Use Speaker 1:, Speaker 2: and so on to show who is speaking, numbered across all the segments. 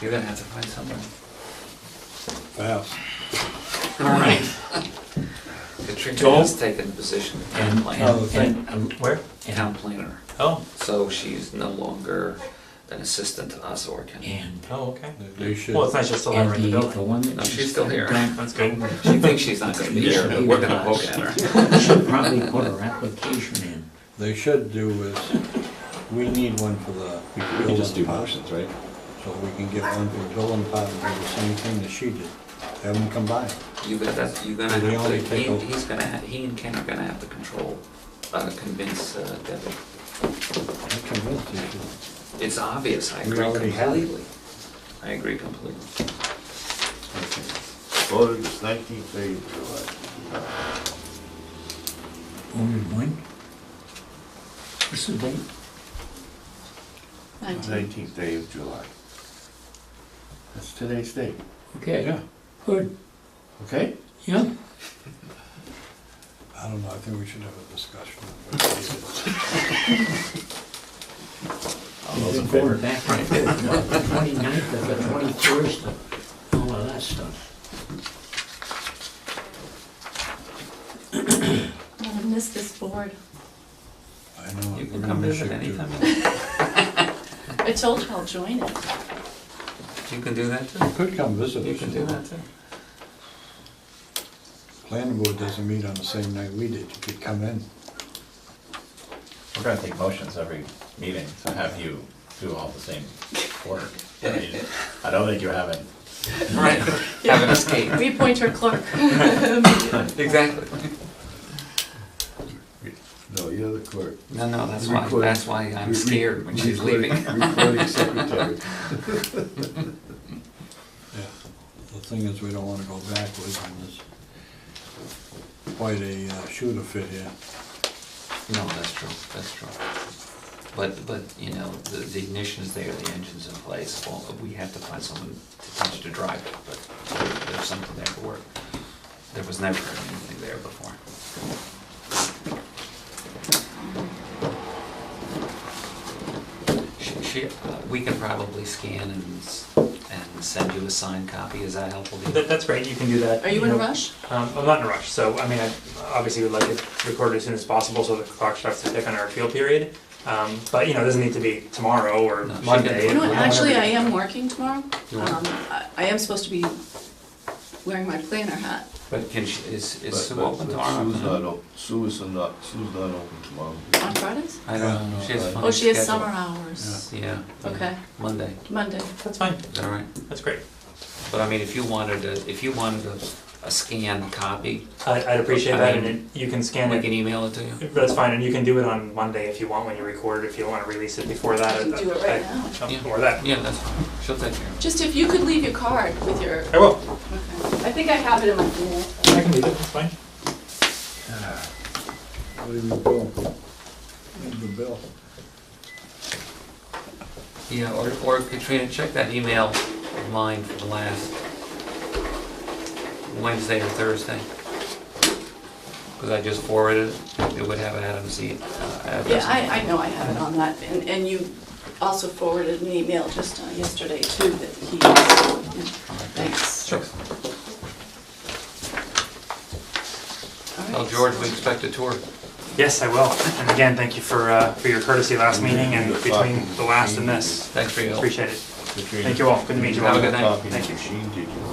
Speaker 1: You're gonna have to find someone.
Speaker 2: fast.
Speaker 3: All right.
Speaker 1: The trick
Speaker 3: Joel?
Speaker 1: is taking a position in town
Speaker 3: And,
Speaker 4: Oh,
Speaker 1: planner,
Speaker 3: and, and, um, where?
Speaker 1: town planner.
Speaker 3: Oh,
Speaker 1: So she's no longer an assistant to us or can.
Speaker 3: and.
Speaker 4: Oh, okay.
Speaker 2: They should.
Speaker 4: Well, it's nice you'll still have her in the
Speaker 3: and The
Speaker 4: building.
Speaker 3: one that.
Speaker 1: No,
Speaker 3: she
Speaker 1: she's still here.
Speaker 3: done-
Speaker 4: That's good.
Speaker 1: She thinks she's not gonna be here, but we're gonna poke at her.
Speaker 3: We should probably put her application in.
Speaker 2: They should do is, we need one for the
Speaker 5: We we can
Speaker 2: building
Speaker 5: just do
Speaker 2: department.
Speaker 5: motions, right?
Speaker 2: So we can get one for the building department, do the same thing that she did. Have them come by.
Speaker 1: You got that, you're gonna
Speaker 2: They
Speaker 1: have to,
Speaker 2: only take
Speaker 1: he,
Speaker 2: over.
Speaker 1: he's gonna, ha- he and Ken are gonna have to control, uh, convince uh, Debbie.
Speaker 2: I'm convinced you should.
Speaker 1: It's obvious, I
Speaker 2: We
Speaker 1: agree
Speaker 2: already have it.
Speaker 1: completely. I agree completely.
Speaker 6: Voted this nineteenth day of July.
Speaker 3: Only one? What's the date?
Speaker 7: Nineteen.
Speaker 6: Nineteenth day of July. That's today's date,
Speaker 3: Okay,
Speaker 2: Yeah,
Speaker 3: good,
Speaker 6: okay?
Speaker 3: yeah.
Speaker 2: I don't know, I think we should have a discussion. on what we did.
Speaker 3: All those in favor? Back and forth, the 29th of the 21st, and all of that stuff.
Speaker 7: I miss this board.
Speaker 2: I know.
Speaker 1: You can
Speaker 2: we're gonna
Speaker 1: come
Speaker 2: miss
Speaker 1: visit
Speaker 2: you too.
Speaker 1: anytime. you want.
Speaker 7: I told you I'll join it.
Speaker 1: You can do that too.
Speaker 2: Could come visit us.
Speaker 1: You can do that too.
Speaker 2: Planning board doesn't meet on the same night we did. You could come in.
Speaker 8: We're gonna take motions every meeting, so have you do all the same work. I mean, I don't think you're having,
Speaker 1: Right, have an escape.
Speaker 7: We appoint our clerk.
Speaker 1: Exactly.
Speaker 6: No, you're the clerk.
Speaker 1: No, no, that's why,
Speaker 6: Recording.
Speaker 1: that's why I'm scared when she's
Speaker 6: Recording-
Speaker 1: leaving.
Speaker 6: Recording secretary.
Speaker 2: Yeah. The thing is, we don't wanna go backwards and there's quite a uh, shooter fit here.
Speaker 1: No, that's true, that's true. But, but, you know, the, the ignition is there, the engine's in place, well, we have to find someone to teach to drive it, but there's something there to work. There was never anything there before. She, she, uh, we can probably scan and, s- and send you a signed copy, is that helpful to
Speaker 4: That,
Speaker 1: you?
Speaker 4: that's great. You can do that.
Speaker 7: Are you in a
Speaker 4: know.
Speaker 7: rush?
Speaker 4: Um, I'm not in a rush, so I mean, I obviously would like it recorded as soon as possible so the clock starts to tick on our appeal period. Um, but you know, it doesn't need to be tomorrow or
Speaker 1: No, she
Speaker 4: Monday.
Speaker 1: didn't.
Speaker 7: You know what,
Speaker 4: Whenever-
Speaker 7: actually, I am working tomorrow.
Speaker 1: You are?
Speaker 7: Um, I I am supposed to be wearing my planner hat.
Speaker 1: But can she, is,
Speaker 6: But-
Speaker 1: is Sue
Speaker 6: but-
Speaker 1: open
Speaker 6: but
Speaker 1: tomorrow?
Speaker 6: Sue's not op, Sue is not, Sue's not open tomorrow.
Speaker 7: On Fridays?
Speaker 1: I don't know, she has a funny
Speaker 7: Oh, she has
Speaker 1: schedule.
Speaker 7: summer hours.
Speaker 1: Yeah.
Speaker 7: Okay.
Speaker 1: Monday,
Speaker 7: Monday.
Speaker 4: That's fine.
Speaker 1: is that right?
Speaker 4: That's great.
Speaker 1: But I mean, if you wanted to, if you wanted a, a scanned copy,
Speaker 4: I, I'd appreciate
Speaker 1: I
Speaker 4: that, and
Speaker 1: mean,
Speaker 4: it, you can scan
Speaker 1: we
Speaker 4: it.
Speaker 1: can email it to you.
Speaker 4: That's fine, and you can do it on Monday if you want when you record. If you don't want to release it before that,
Speaker 7: I can
Speaker 4: uh,
Speaker 7: do it
Speaker 4: I-
Speaker 7: right now.
Speaker 4: um,
Speaker 1: Yeah.
Speaker 4: Or that.
Speaker 1: Yeah, that's fine, she'll take care of
Speaker 7: Just if you could leave your card with your, okay.
Speaker 4: I will.
Speaker 7: I think I have it in my email.
Speaker 4: I can do that. That's fine.
Speaker 2: What do you go? Where's the bill?
Speaker 1: it. Yeah, or, or Katrina, check that email of mine from last Wednesday or Thursday. Because I just forwarded it, it would have Adam's e- uh,
Speaker 7: Yeah,
Speaker 1: address.
Speaker 7: I, I know I have it on that, and, and you also forwarded an email just uh, yesterday too that he, thanks.
Speaker 1: Sure.
Speaker 7: All right,
Speaker 1: Tell George
Speaker 7: so-
Speaker 1: we expect a tour.
Speaker 4: Yes, I will. And again, thank you for uh, for your courtesy last meeting and
Speaker 6: You're
Speaker 4: between
Speaker 6: welcome.
Speaker 4: the last and this.
Speaker 1: Thanks for your help.
Speaker 4: Appreciate it. Thank you all. Good to meet you all.
Speaker 1: Have a good night.
Speaker 6: Copy
Speaker 4: Thank you.
Speaker 6: machine, did you?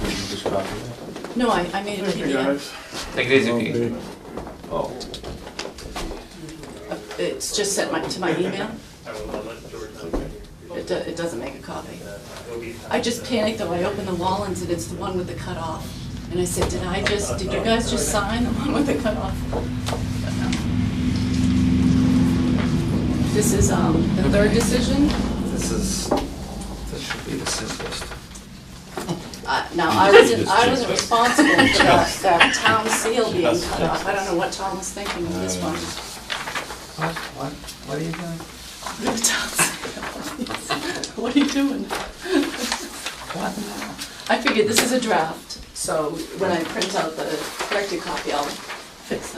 Speaker 6: Did you just copy that?
Speaker 7: No, I, I made a PDF.
Speaker 1: Take it easy, Pete.
Speaker 6: Oh.
Speaker 7: Uh, It's just sent my, to my email.
Speaker 4: I will let George
Speaker 7: It, do- it doesn't make a copy.
Speaker 4: know.
Speaker 7: I just panicked though. I opened the Wallens and it's the one with the cutoff. And I said, did I just, did you guys just sign the one with the cutoff? But no. This is, um, the third decision.
Speaker 1: This is, this should be the simplest.
Speaker 7: Uh, Now, I wasn't, I wasn't responsible for that, that town seal being cut off. I don't know what Tom was thinking of
Speaker 1: Uh,
Speaker 7: this one.
Speaker 1: What, what, what are you doing?
Speaker 7: The town seal. What are you doing?
Speaker 1: What now?
Speaker 7: I figured this is a draft, so when I print out the corrected copy, I'll fix